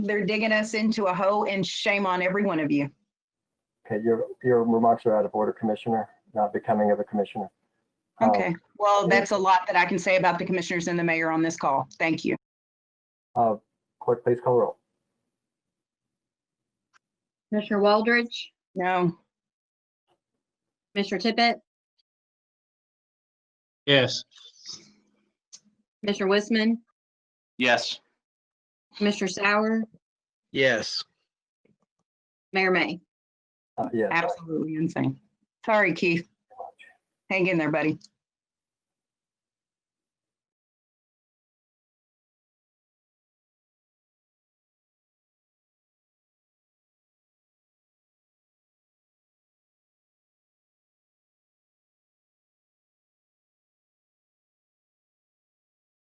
They're digging us into a hole and shame on every one of you. Okay, your, your remarks are out of order, Commissioner, not becoming of a commissioner. Um, Okay, well, that's a lot that I can say about the commissioners and the mayor on this call. Thank you. uh, Clerk, please call roll. Commissioner Waldridge, No, Commissioner Tippett, Yes. Commissioner Wiseman, Yes. Commissioner Sauer, Yes. Mayor May. Uh, Yes. absolutely insane. Sorry, Keith. Hang in there, buddy.